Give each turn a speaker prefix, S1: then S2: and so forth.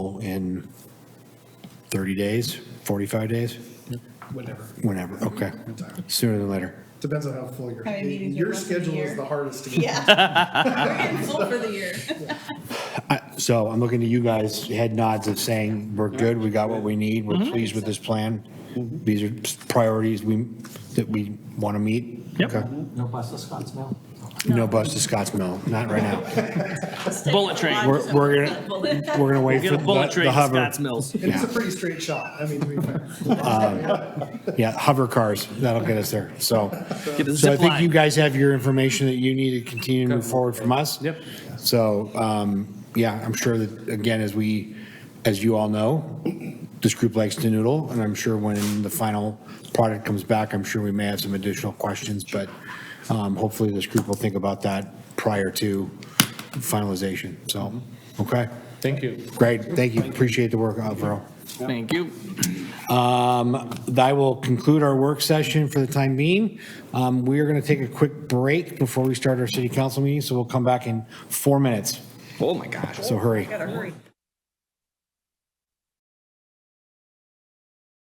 S1: in 30 days, 45 days,
S2: whatever.
S1: whenever, okay. Sooner than later.
S2: Depends on how full your,
S3: How many meetings are
S2: your
S3: left in the
S2: schedule is
S3: year?
S2: the hardest to get.
S3: Yeah. We're getting full for the year.
S1: I- So I'm looking to you guys, head nods of saying, we're good, we got what we need,
S4: Mm-hmm.
S1: we're pleased with this plan. These are priorities we, that we want to meet.
S4: Yep.
S1: Okay.
S5: No bus escorts now?
S1: No bus to Scotts Mill, not right now.
S4: Bullet train.
S1: We're, we're gonna,
S3: Bullet.
S1: we're gonna wait
S4: Get
S1: for
S4: a bullet
S1: the
S4: train
S1: the
S4: to
S1: hover.
S4: Scotts Mills.
S2: It is a
S1: Yeah.
S2: pretty straight shot, I mean, to be fair.
S1: Yeah, hover cars, that'll get us there, so.
S4: Get a
S1: So I
S4: zip
S1: think you
S4: line.
S1: guys have your information that you need to continue to move forward from us.
S4: Yep.
S1: So, um, yeah, I'm sure that, again, as we, as you all know, this group likes to noodle, and I'm sure when the final product comes back, I'm sure we may have some additional questions, but um, hopefully this group will think about that prior to finalization, so, okay?
S6: Thank you.
S1: Great, thank you, appreciate the work, uh, Alvaro.
S4: Thank you.
S1: Um, That will conclude our work session for the time being. Um, We are going to take a quick break before we start our city council meeting, so we'll come back in four minutes,
S4: Oh, my gosh.
S1: so hurry.
S3: Gotta hurry.